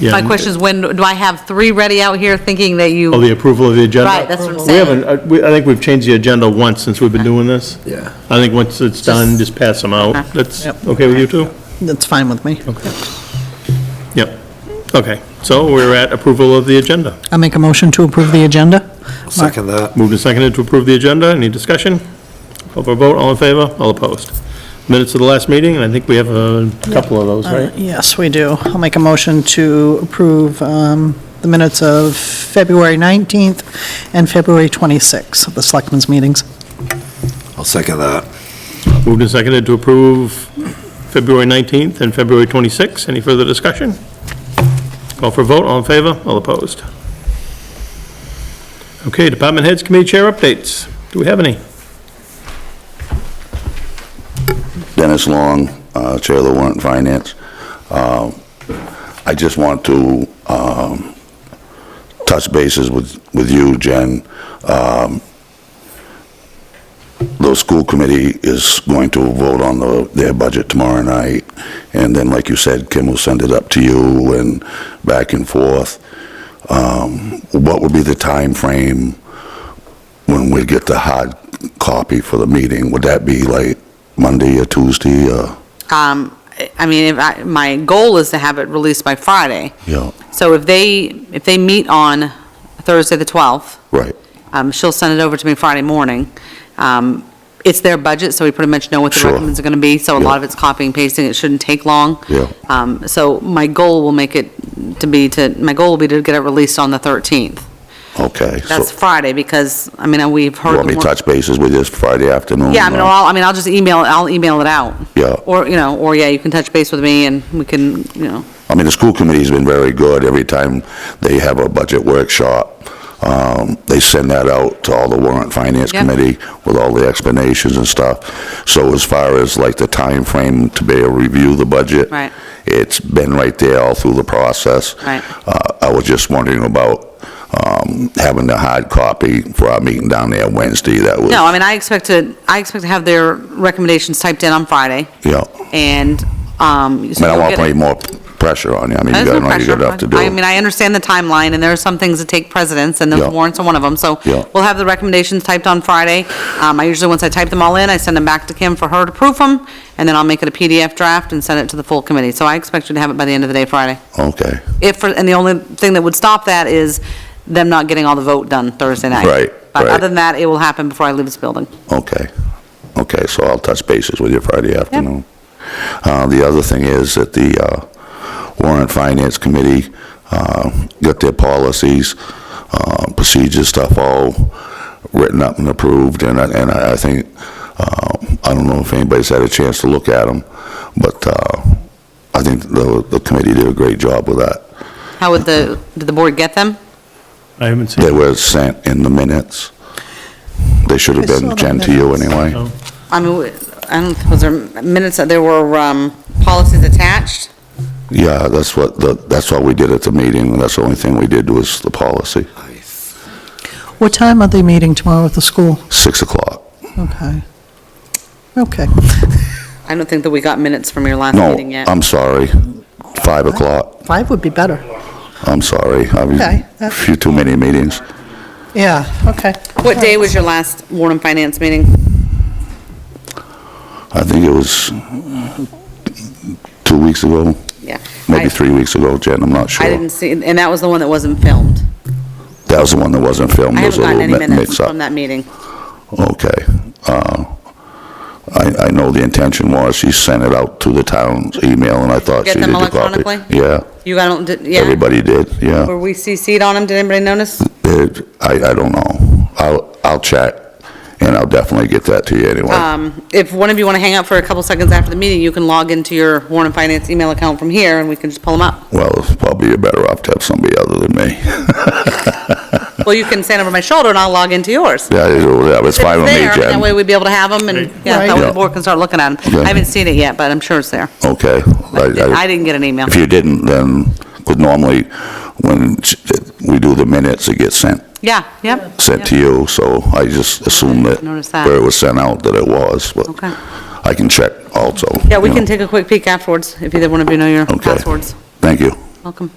Yeah. My question is, when, do I have three ready out here thinking that Oh, you, the approval of the agenda? Right, that's what I'm We haven't, uh, we- I think we've changed the agenda once since we've been doing this. Yeah. I think once it's done, just pass them out. Okay. That's Yep. okay with you two? That's fine with me. Yep. Okay, so we're at approval of the agenda. I make a motion to approve the agenda. Second that. Moved and seconded to approve the agenda. Any discussion? Call for a vote, all in favor, all opposed. Minutes of the last meeting, and I think we have a couple of those, right? Yes, we do. I'll make a motion to approve um, the minutes of February 19th and February 26th of the Selectmen's meetings. I'll second that. Moved and seconded to approve February 19th and February 26th. Any further discussion? Call for a vote, all in favor, all opposed. Okay, department heads, committee chair updates. Do we have any? Dennis Long, uh, Chair of the Warrant and Finance. Uh, I just want to um, touch bases with with you, Jen. Um, The school committee is going to vote on the- their budget tomorrow night, and then, like you said, Kim will send it up to you and back and forth. Um, What would be the time frame when we get the hard copy for the meeting? Would that be like Monday or Tuesday or? um, I mean, if I, my goal is to have it released by Friday. Yeah. So if they, if they meet on Thursday, the 12th, Right, um, she'll send it over to me Friday morning. Um, It's their budget, so we pretty much know what the Sure. recommends are going to be, so a lot Yeah. of it's copying, pasting, it shouldn't take long. Yeah. Um, So my goal will make it to be to, my goal will be to get it released on the 13th. okay. So That's Friday, because, I mean, we've You heard. want me to more- touch bases with this Friday afternoon? Yeah, I mean, or- or I'll, I mean, I'll just email, I'll email it out. Yeah. Or, you know, or yeah, you can touch base with me and we can, you know, I mean, the school committee's been very good. Every time they have a budget workshop, um, they send that out to all the warrant finance Yeah. committee with all the explanations and stuff. So as far as like the time frame to be able to review the budget. Right. It's been right there all through the process. Right. Uh, I was just wondering about, um, having the hard copy for our meeting down there Wednesday. That was. no, I mean, I expect to, I expect to have their recommendations typed in on Friday Yeah. and, um. I mean, I want to put any more pressure on you. I mean, you There's no got to pressure. good enough to do. I mean, I understand the timeline, and there are some things that take precedence, and those Yeah. warrants are one of them. So Yeah. we'll have the recommendations typed on Friday. Um, I usually, once I type them all in, I send them back to Kim for her to proof them, and then I'll make it a PDF draft and send it to the full committee. So I expect you to have it by the end of the day Friday. Okay, If, and the only thing that would stop that is them not getting all the vote done Thursday night. Right, But right. other than that, it will happen before I leave this building. okay, okay, so I'll touch bases with you Friday afternoon. Uh, the other thing is that the, uh, warrant finance committee, uh, got their policies, uh, procedures stuff all written up and approved, and I, and I I think, uh, I don't know if anybody's had a chance to look at them, but, uh, I think the, the committee did a great job with that. How would the, did the board get them? I haven't seen. They were sent in the minutes. They should have I saw been the sent to you minutes. anyway. I mean, w- I don't, was there minutes, that there were um, policies attached? Yeah, that's what, the that's what we did at the meeting, that's the only thing we did was the policy, What time are they meeting tomorrow at the school? 6 o'clock. Okay. Okay. I don't think that we got minutes from your last No, um, meeting yet. I'm sorry, 5 o'clock, Five would be better. I'm sorry, I was, Okay, a that's- few too many meetings. Yeah, okay. What day was your last Warren Finance meeting? I think it was two weeks ago, Yeah. I- maybe three weeks ago, Jen, I'm not I didn't sure. see, and that was the one that wasn't filmed. That was the one that wasn't filmed, I it was haven't a gotten any little mi- minutes mix-up. from that meeting. Okay. Uh, I, I know the intention was she sent it out to the town's email, and I thought Get she did them the copy. electronically? Yeah, You got, them, did- yeah, everybody did, were yeah. we CC'd on them? Did anybody notice? It- I, I don't know. I'll, I'll check, and I'll definitely get that to you anyway. Um, If one of you want to hang out for a couple seconds after the meeting, you can log into your Warren Finance email account from here, and we can just pull them up. Well, it's probably you're better off to have somebody other than me. Well, you can stand over my shoulder, and I'll log into yours. Yeah, it's yeah, it's fine with me, It's there, That way Jen. we'd be able to have them, and, yeah, that way the Right. board can start looking at them. Okay. I haven't seen it yet, but I'm sure it's there. Okay. I didn't get an email. If you didn't, then, because normally, when sh- we do the minutes, it gets sent Yeah, yep. sent to you, so I just assumed that Noticed that. where it was sent out, that it was, but Okay. I can check also. Yeah, we you can know. take a quick peek afterwards, if either one of you know your Okay. passwords. Thank you. Welcome.